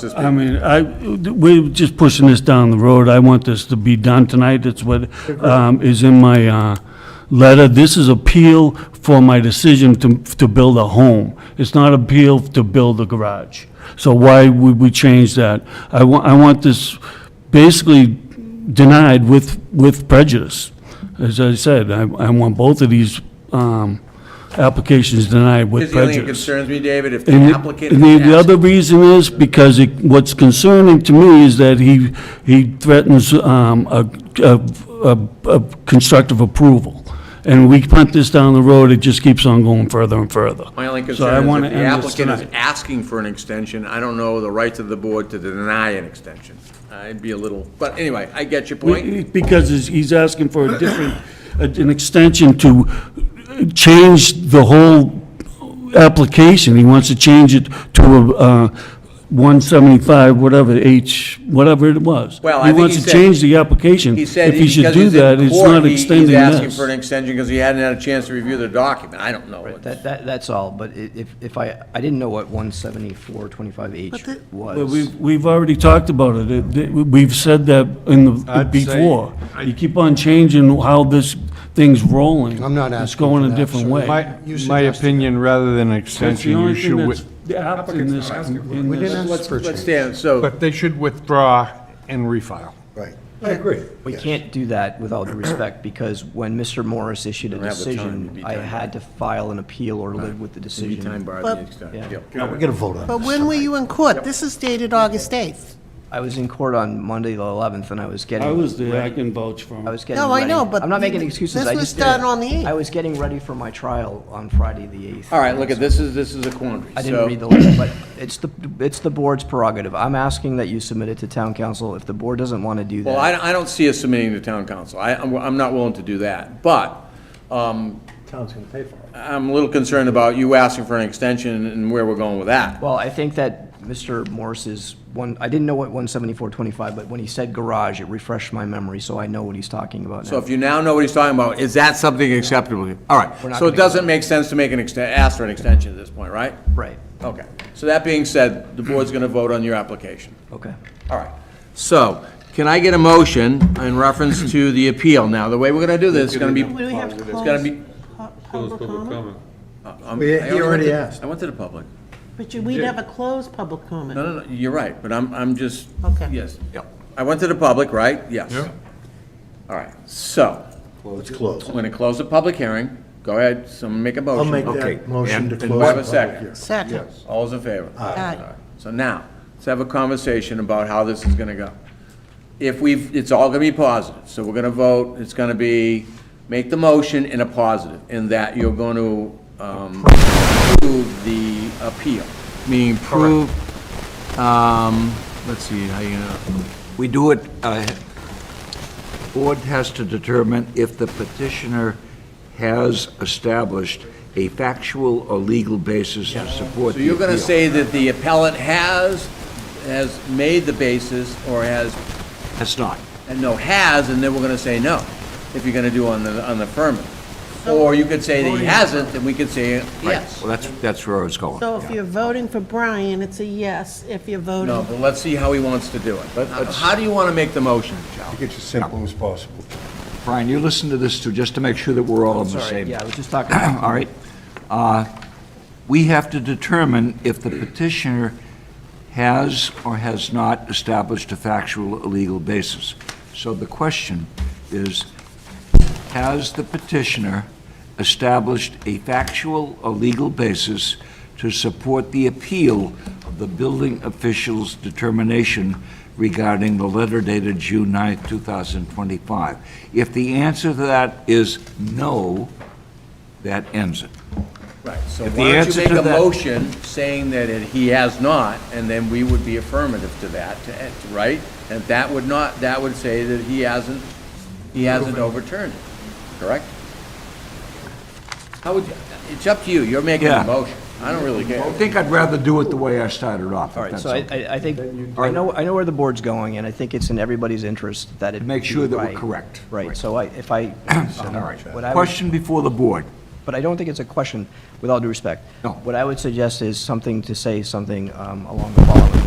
Just I mean, I, we're just pushing this down the road. I want this to be done tonight. That's what um, is in my uh, letter. This is appeal for my decision to, to build a home. It's not appeal to build a garage. So why would we change that? I want, I want this basically denied with, with prejudice. As I said, I, I want both of these um, applications denied with Here's the only prejudice. thing that concerns me, David, if the And the- applicant. and the- is The other asking- reason is because it, what's concerning to me is that he, he threatens, um, a, a, a- a constructive approval. And we punt this down the road, it just keeps on going further and further. My only I concern is wanna if the end this applicant is tonight. asking for an extension, I don't know the rights of the board to deny an extension. I'd be a little, but anyway, I get your point. Because he's- he's asking for a different, an extension to change the whole application. He wants to change it to a, uh, 175, whatever, H, whatever it was. Well, I think wants he to said- change the application. He said If he should because do he's that, in it's court, not he- he's extending asking for an this. extension because he hadn't had a chance to review the document. I don't know. what- That, that, that's all, but i- if, if I, I didn't know what one seventy-four twenty-five H But was. we've, we've already talked about it. It- it- We've said that in the, I'd say- before. You keep on changing how this thing's rolling. I'm not It's asking for going a that, different sir. way. My, You my suggested opinion, rather than an That's the extension, you only thing should, that's, wi- the app in Applicant's this, not asking for it. in We this- didn't ask for a Let's change. stand, so, but they should withdraw and refile. Right. I agree. We can't do that with all due respect, because when Mr. Morris issued a have the time, you'd decision, be I time had to file an appeal or live with the decision. time barred the But- extension. Yeah. Yeah. We're going to vote on But this. when were you in court? This is dated August 8th. I was in court on Monday the eleventh, and I was getting. I was there, I can vouch for him. I was getting No, I ready. know, but I'm not making th- excuses, this I was just did. done on the 8th. I was getting ready for my trial on Friday the eighth. All right, look, at this is, this is a quandary. I didn't So- read the letter, but it's the, it's the board's prerogative. I'm asking that you submit it to town council. If the board doesn't want to do that. Well, I, I don't see us submitting to town council. I, I'm I'm not willing to do that, but, um, Town's going to pay for it. I'm a little concerned about you asking for an extension and where we're going with that. Well, I think that Mr. Morris's one, I didn't know what one seventy-four twenty-five, but when he said garage, it refreshed my memory, so I know what he's talking about So now. if you now know what he's talking about, is that something acceptable? to you? All right, not so it gonna go doesn't make sense to make an extent, ask for an extension at this point, right? Right, Okay, so that being said, the board's gonna vote on your application. okay. All right, so, can I get a motion in reference to the appeal? Now, the way we're gonna do this is gonna be, Do we have to it's close gonna be. pu- Close public public comment? comment. I'm- We- I he went already to- asked. I went to the public. But you- we never closed public No, comment. no, no, you're right, but I'm, I'm just. Okay. Yes. I went to the public, right? Yes. All right, so, Let's close. I'm gonna close the public hearing. Go ahead, someone make a I'll motion. make Okay. that motion to And- and close. we have a the public second. hearing. Second. All those in favor? Aye. So now, let's have a conversation about how this is gonna go. If we've, it's all gonna be positive, so we're gonna vote, it's gonna be, make the motion in a positive, in that you're gonna, um, approve the appeal, meaning approve, um, let's see, how you gonna, We do it, uh, board has to determine if the petitioner has established a factual or legal basis to support so the you're gonna appeal. say that the appellant has, has made the basis, or has, That's not. and no, has, and then we're gonna say no, if you're gonna do on the, on the affirmative. Or you could say that he hasn't, and we could say yes. Well, that's, that's where I was going. So if you're voting for Brian, it's a yes. If you're No, voting, but let's see how he wants to do it. Uh, let's- How do you want to make the motion, Joe? Make it as simple as possible. Brian, you listen to this too, just to make sure that we're all on the Sorry, same. yeah, I was just talking about All right. Uh, We have to determine if the petitioner has or has not established a factual or legal basis. So the question is, has the petitioner established a factual or legal basis to support the appeal of the building official's determination regarding the letter dated June 9, 2025? If the answer to that is no, that ends it. Right, so If the why don't you answer make to a that- motion saying that it- he has not, and then we would be affirmative to that, to- eh, right? And that would not, that would say that he hasn't, he hasn't overturned it, correct? How would, you- it's up to you, you're making Yeah. a motion. I don't really care. I think I'd rather do it the way I started off, All if right, that's so I, okay. I I think, I know, I know where the board's going, and I think it's in everybody's interest that it. Make be sure that we're right. correct. Right, so I, if I. um, All what I right. would- Question before the board. But I don't think it's a question, with all due respect. No. What I would suggest is something to say something um, along the following